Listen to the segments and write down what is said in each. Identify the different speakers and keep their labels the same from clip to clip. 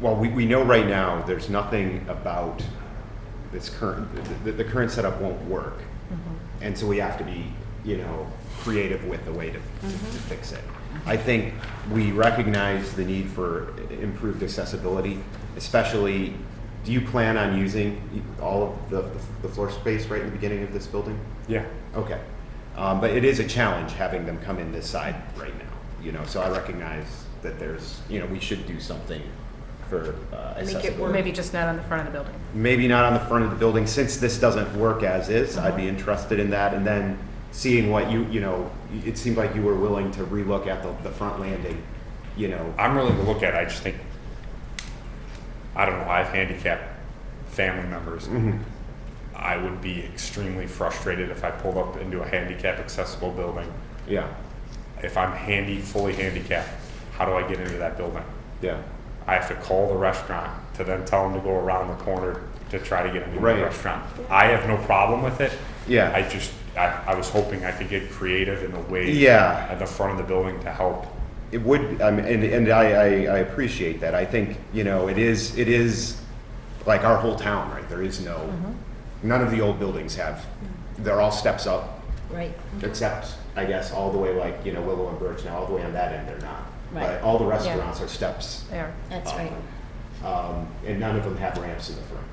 Speaker 1: well, we, we know right now, there's nothing about this current, the, the current setup won't work. And so we have to be, you know, creative with the way to, to to fix it. I think we recognize the need for i- improved accessibility, especially, do you plan on using all of the, the floor space right in the beginning of this building?
Speaker 2: Yeah.
Speaker 1: Okay. Um, but it is a challenge having them come in this side right now, you know, so I recognize that there's, you know, we should do something for uh,
Speaker 3: Make it
Speaker 1: accessibility.
Speaker 3: work. Maybe just not on the front of the building.
Speaker 1: Maybe not on the front of the building, since this doesn't work as is, I'd
Speaker 3: Uh-huh.
Speaker 1: be interested in that, and then seeing what you, you know, it seemed like you were willing to relook at the, the front landing, you know.
Speaker 2: I'm willing to look at it. I just think, I don't know, I have handicapped family members.
Speaker 1: Mhm.
Speaker 2: I would be extremely frustrated if I pulled up into a handicap accessible building.
Speaker 1: Yeah,
Speaker 2: If I'm handy, fully handicapped, how do I get into that building?
Speaker 1: yeah,
Speaker 2: I have to call the restaurant to then tell them to go around the corner to try to get into
Speaker 1: Right.
Speaker 2: the restaurant. I have no problem with it.
Speaker 1: Yeah.
Speaker 2: I just, I, I was hoping I could get creative in a way
Speaker 1: Yeah.
Speaker 2: at the front of the building to help.
Speaker 1: it would, I mean, and, and I, I, I appreciate that, I think, you know, it is, it is like our whole town, right, there is no,
Speaker 4: Mm-hmm.
Speaker 1: none of the old buildings have, they're all steps up,
Speaker 4: Right.
Speaker 1: except, I guess, all the way like, you know, Willow and Birch, now all the way on that end, they're not. But
Speaker 4: Right.
Speaker 1: all the restaurants are steps
Speaker 3: There.
Speaker 4: That's right.
Speaker 1: Um, and none of them have ramps in the front.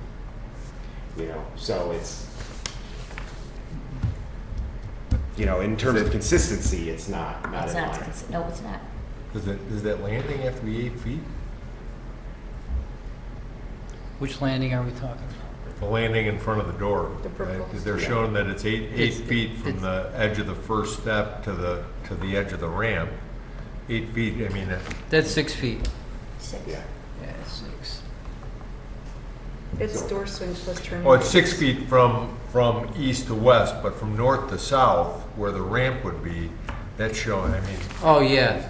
Speaker 1: You know, so it's, you know, in terms of consistency, it's not, not
Speaker 4: It's
Speaker 1: in
Speaker 4: not,
Speaker 1: line.
Speaker 4: it's- no, it's not.
Speaker 5: Does that, does that landing have to be eight feet?
Speaker 6: Which landing are we talking about?
Speaker 5: The landing in front of the door,
Speaker 3: The purple.
Speaker 5: because they're
Speaker 1: Yeah.
Speaker 5: showing that it's eight, eight
Speaker 6: It's-
Speaker 5: feet from
Speaker 6: it's-
Speaker 5: the edge of the first step to the, to the edge of the ramp. Eight feet, I mean, that-
Speaker 6: That's six feet.
Speaker 4: Six.
Speaker 1: Yeah,
Speaker 6: Yeah, it's six.
Speaker 3: It's door swings plus turning.
Speaker 5: oh, it's six feet from, from east to west, but from north to south, where the ramp would be, that's showing, I mean,
Speaker 6: Oh, yeah,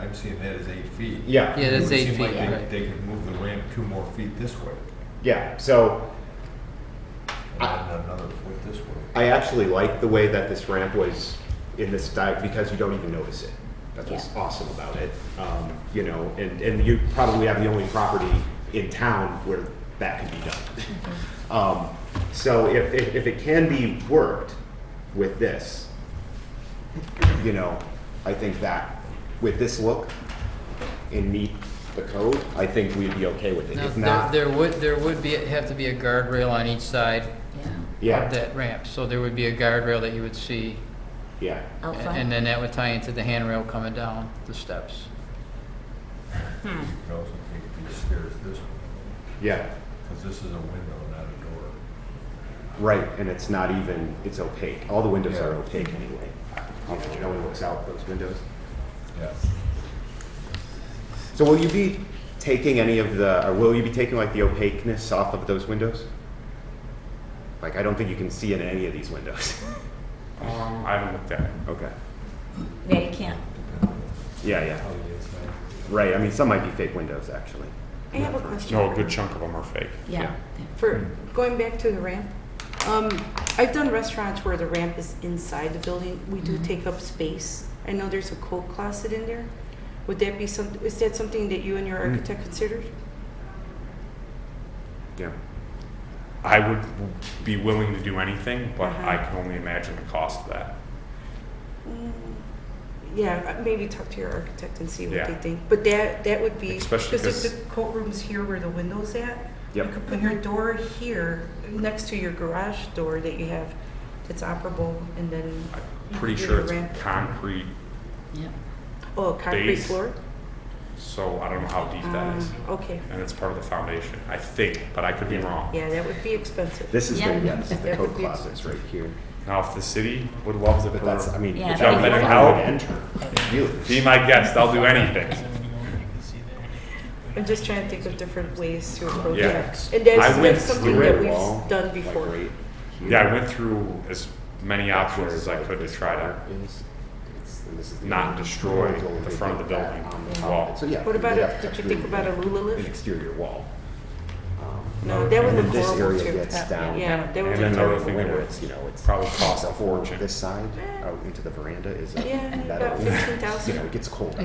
Speaker 5: I'm, I'm seeing that as eight feet.
Speaker 1: yeah.
Speaker 6: yeah,
Speaker 5: It
Speaker 6: that's
Speaker 5: would
Speaker 6: eight
Speaker 5: seem like
Speaker 6: feet,
Speaker 5: they-
Speaker 6: right.
Speaker 5: They could move the ramp two more feet this way,
Speaker 1: Yeah, so
Speaker 5: and then another foot this way.
Speaker 1: I actually like the way that this ramp was in this dive because you don't even notice it. That's what's
Speaker 4: Yeah.
Speaker 1: awesome about it. Um, you know, and, and you probably have the only property in town where that can be done. um, so if, if, if it can be worked with this, you know, I think that with this look and meet the code, I think we'd be okay with it.
Speaker 6: Now,
Speaker 1: if
Speaker 6: there,
Speaker 1: not,
Speaker 6: there would, there would be, have to be a guardrail on each side
Speaker 4: Yeah.
Speaker 1: yeah,
Speaker 6: of that ramp, so there would be a guardrail that you would see,
Speaker 1: yeah,
Speaker 4: Out
Speaker 6: and- and
Speaker 4: front.
Speaker 6: then that would tie into the handrail coming down the steps.
Speaker 5: You could also take these stairs this way.
Speaker 1: yeah.
Speaker 5: Because this is a window, not a door.
Speaker 1: Right, and it's not even, it's opaque. All the windows are
Speaker 5: Yeah.
Speaker 1: opaque anyway. You know, no one looks out those windows.
Speaker 5: Yeah.
Speaker 1: So will you be taking any of the, or will you be taking like the opaqueness off of those windows? Like, I don't think you can see in any of these windows.
Speaker 2: Um, I haven't looked at it.
Speaker 1: Okay.
Speaker 4: Yeah, you can't.
Speaker 1: Yeah, yeah. Right, I mean, some might be fake windows, actually.
Speaker 7: I have a question.
Speaker 2: No, a Oh, good chunk of them are fake.
Speaker 4: Yeah.
Speaker 7: For, going back to the ramp, um, I've done restaurants where the ramp is inside the building. We do take up space. I know there's a coat closet in there. Would that be some, is that something that you and your architect considered?
Speaker 1: Yeah.
Speaker 2: I would w- be willing to do anything, but
Speaker 7: Uh-huh.
Speaker 2: I can only imagine the cost of that.
Speaker 7: Yeah, uh, maybe talk to your architect and see what
Speaker 2: Yeah.
Speaker 7: they think. But that, that would be,
Speaker 2: Especially
Speaker 7: because if
Speaker 2: 'cause-
Speaker 7: the coat room's here where the window's at, you
Speaker 1: Yep.
Speaker 7: could put your door here, next to your garage door that you have that's operable, and then,
Speaker 2: I'm pretty
Speaker 7: Yeah,
Speaker 2: sure it's
Speaker 7: ramp.
Speaker 2: concrete,
Speaker 4: Yeah.
Speaker 7: oh, concrete
Speaker 2: Base.
Speaker 7: floor?
Speaker 2: so I don't know how deep that is.
Speaker 7: Um, Okay.
Speaker 2: And it's part of the foundation, I think, but I could be
Speaker 1: Yeah.
Speaker 2: wrong.
Speaker 7: Yeah, that would be expensive.
Speaker 1: This is the,
Speaker 4: Yeah.
Speaker 1: yeah, this is the
Speaker 7: That
Speaker 1: coat
Speaker 7: would be-
Speaker 1: closets right here.
Speaker 2: Now, if the city would love to,
Speaker 1: But that's, I
Speaker 2: per-
Speaker 1: mean.
Speaker 4: Yeah,
Speaker 1: if
Speaker 4: that'd
Speaker 1: you
Speaker 4: be
Speaker 1: would
Speaker 2: fine.
Speaker 1: enter, you-
Speaker 2: be my guest, I'll do anything.
Speaker 7: I'm just trying to think of different ways to approach
Speaker 2: Yeah.
Speaker 7: that. And that's
Speaker 2: I went
Speaker 7: that's something
Speaker 2: through
Speaker 7: that
Speaker 2: it.
Speaker 7: we've done
Speaker 1: Like
Speaker 7: before.
Speaker 1: right here.
Speaker 2: Yeah, I went through as many
Speaker 1: That's
Speaker 2: options
Speaker 1: where
Speaker 2: as I could to
Speaker 1: this
Speaker 2: try to,
Speaker 1: part is. It's- and this is the
Speaker 2: not
Speaker 1: only
Speaker 2: destroy
Speaker 1: portal
Speaker 2: the
Speaker 1: they
Speaker 2: front of
Speaker 1: did
Speaker 2: the
Speaker 1: that
Speaker 2: building
Speaker 1: on the
Speaker 2: wall.
Speaker 1: top. So yeah.
Speaker 7: What about
Speaker 1: they'd
Speaker 7: a-
Speaker 1: have to
Speaker 7: did you think
Speaker 1: actually
Speaker 7: about a Lula
Speaker 1: An
Speaker 7: lift?
Speaker 1: exterior wall. Um,
Speaker 7: No, that
Speaker 1: and
Speaker 7: would
Speaker 1: then
Speaker 7: look
Speaker 1: this
Speaker 7: horrible
Speaker 1: area
Speaker 7: too.
Speaker 1: gets
Speaker 7: That-
Speaker 1: down.
Speaker 7: Yeah, that would
Speaker 2: And
Speaker 7: be
Speaker 2: then the
Speaker 7: terrible.
Speaker 2: other thing that
Speaker 1: Winter,
Speaker 2: would
Speaker 1: it's, you know, it's.
Speaker 2: probably cost a
Speaker 1: the whole-
Speaker 2: fortune.
Speaker 1: This side, out into the veranda is a
Speaker 7: Yeah,
Speaker 1: metal.
Speaker 7: about
Speaker 1: You know,
Speaker 7: 15,000.
Speaker 1: it gets cold.